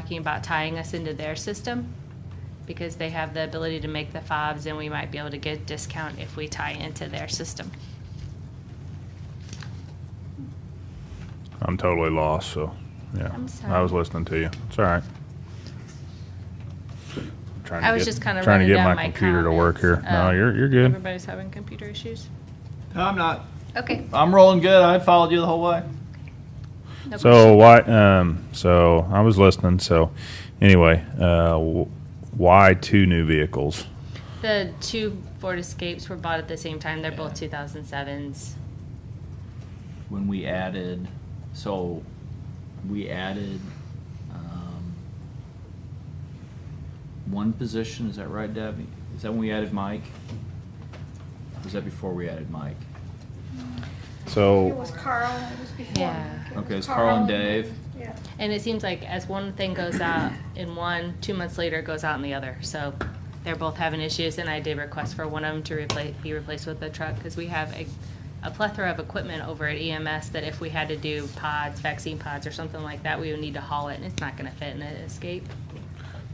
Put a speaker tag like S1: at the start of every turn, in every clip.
S1: talking about tying us into their system because they have the ability to make the fobs and we might be able to get discount if we tie into their system.
S2: I'm totally lost, so, yeah.
S1: I'm
S2: I was
S1: sorry.
S2: listening to you. It's all right. Trying to
S1: I was
S2: get-
S1: just kind of
S2: Trying to
S1: running
S2: get
S1: down
S2: my
S1: my
S2: computer to work here.
S1: comments.
S2: No,
S1: Uh,
S2: you're, you're good.
S1: Everybody's having computer issues.
S3: No, I'm not.
S1: Okay.
S3: I'm rolling good. I followed you the whole way.
S1: no
S2: So why, um, so I was listening, so anyway, uh, w- why two new vehicles?
S1: question. The two Ford Escapes were bought at the same time. They're both 2007s.
S3: When we added, so we added um, one position. Is that right, Debbie? Is that when we added Mike? Was that before we added Mike?
S2: So.
S4: It was Carl, it was before.
S1: Yeah.
S4: was
S3: Okay, it's Carl and Dave.
S4: Yeah.
S1: And it seems like as one thing goes out in one, two months later it goes out in the other. So they're both having issues, and I did request for one of them to replace, be replaced with a truck, because we have a, a plethora of equipment over at EMS that if we had to do pods, vaccine pods or something like that, we would need to haul it, and it's not gonna fit in an escape.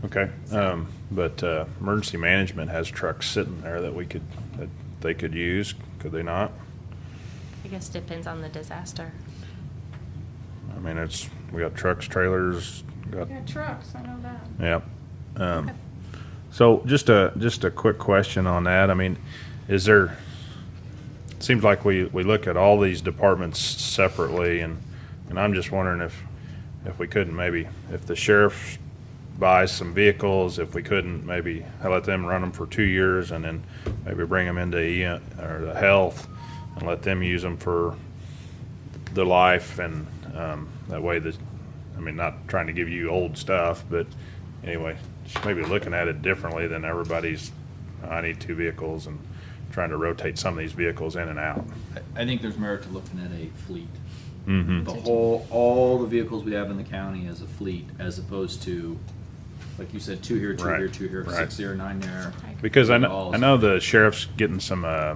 S2: Okay, um, but, uh, emergency management has trucks sitting there that we could, that they could use, could they not?
S1: I guess depends on the disaster.
S2: I mean, it's, we got trucks, trailers, got
S4: Yeah, trucks, I know that.
S2: Yep. Um, so just a, just a quick question on that. I mean, is there, it seems like we, we look at all these departments separately and, and I'm just wondering if, if we couldn't maybe, if the sheriff buys some vehicles, if we couldn't maybe let them run them for two years and then maybe bring them into E, or the health and let them use them for the life and um, that way that I mean not trying to give you old stuff but anyway just maybe looking at it differently than everybody's I need two vehicles and trying to rotate some of these vehicles in and out
S3: I, I think there's merit to looking at a fleet.
S2: mm-hmm.
S3: The whole, all the vehicles we have in the county as a fleet, as opposed to, like you said, two here, two
S2: Right,
S3: here, two here,
S2: right.
S3: six here, nine there.
S2: because I know, I know the sheriff's getting some uh,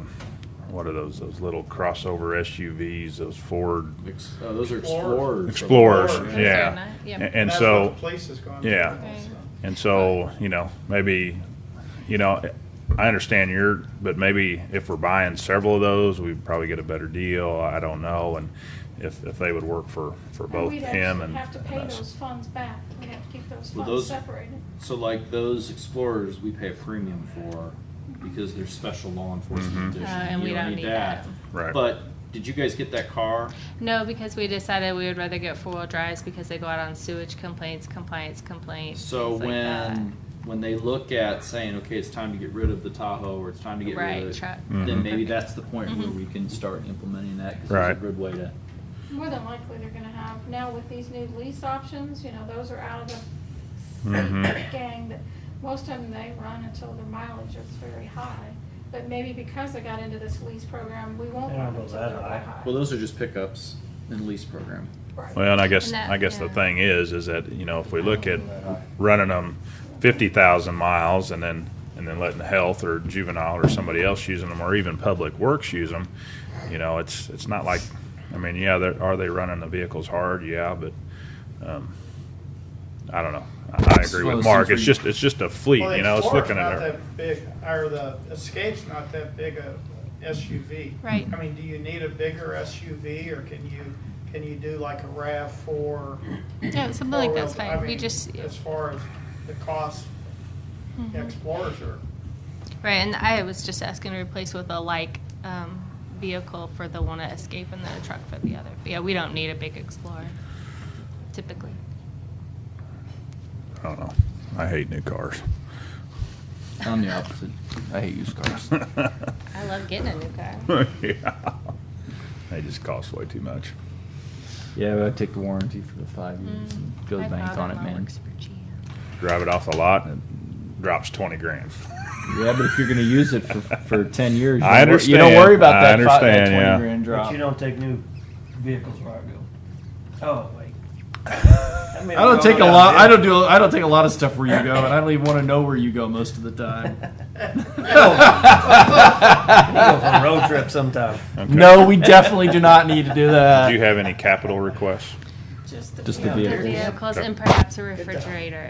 S2: what are those those little crossover SUVs those Ford
S3: Ex- Oh, those are
S5: Explorers.
S3: explorers.
S2: Explorers
S5: Explorers.
S2: yeah,
S1: Yeah.
S2: and,
S5: And
S2: and
S5: that's
S2: so
S5: what the Place has gone. through
S2: yeah.
S5: also.
S2: And so, you know, maybe, you know, I understand your, but maybe if we're buying several of those, we'd probably get a better deal. I don't know. And if, if they would work for, for both
S4: we'd
S2: him
S4: actually
S2: and,
S4: Have to
S2: and
S4: pay
S2: us.
S4: those funds back, we have to keep those
S3: Well,
S4: funds
S3: those-
S4: separated.
S3: So like those explorers, we pay a premium for because they're special law enforcement
S1: Uh,
S3: edition.
S1: and
S3: You
S1: we don't need that.
S2: Mm-hmm. Right.
S3: But did you guys get that car?
S1: No, because we decided we would rather get four-wheel drives because they go out on sewage complaints, compliance complaints,
S3: So
S1: things like that.
S3: when, when they look at saying, okay, it's time to get rid of the Tahoe or it's time to get
S1: Right,
S3: rid of.
S1: truck. Mm-hmm.
S2: Mhm.
S3: Then maybe that's the point where we can start implementing that because
S2: Right.
S3: it's a good way to.
S4: More than likely, they're gonna have, now with these new lease options, you know, those are out of the
S2: Mhm.
S4: gang, that most of them, they run until their mileage is very high. But maybe because they got into this lease program, we won't
S5: They don't
S4: run
S5: go
S4: until
S5: that
S4: they're
S5: high.
S4: high.
S3: Well, those are just pickups in lease program.
S4: Right.
S2: Well, and I guess,
S1: And that-
S2: I guess the
S1: yeah.
S2: thing is, is that, you know, if we look at running them fifty thousand miles and then, and then letting health or juvenile or somebody else using them, or even public works use them, you know, it's, it's not like, I mean, yeah, they're, are they running the vehicles hard? Yeah, but, um, I don't know. I I agree
S3: Well,
S2: with
S3: it
S2: Mark. It's
S3: seems we-
S2: just, it's just a fleet,
S5: Well, the
S2: you know, it's
S5: Explorer's
S2: looking at
S5: not
S2: it.
S5: that Big, or the Escape's not that big a SUV.
S1: Right.
S5: I mean, do you need a bigger SUV or can you, can you do like a RAV four?
S1: Yeah, something like that's
S5: four-wheel- I
S1: fine. We
S5: mean,
S1: just, Mm-hmm.
S5: As far as the cost, Explorers are,
S1: right, and I was just asking to replace with a like um, vehicle for the one to escape and then a truck for the other. But yeah, we don't need a big Explorer typically.
S2: I don't know. I hate new cars.
S3: I'm the opposite. I hate used cars.
S1: I love getting a new car.
S2: Yeah. They just cost way too much.
S3: Yeah, but I take the warranty for the five
S1: Mm,
S3: years and go to the bank on it, man.
S2: drive it off the lot and it drops 20 grand.
S3: Yeah, but if you're gonna use it for, for ten years, you
S2: I
S3: don't wor- You don't
S2: understand.
S3: worry about
S2: I
S3: that, fi- that
S2: understand,
S3: twenty
S2: yeah.
S3: grand
S6: But
S3: drop.
S6: you don't take new vehicles where I go. Oh, wait. I
S3: I don't take a lot. I don't do. I don't take a lot of stuff where you go, and I don't even want to know where you go most of the time.
S6: go for a road trip sometime.
S2: Okay.
S3: No, we definitely do not need to do
S2: Do you
S3: that.
S2: have any capital requests?
S4: Just just the
S3: Just the
S4: vehicle.
S1: The
S3: vehicles.
S1: vehicles and perhaps a refrigerator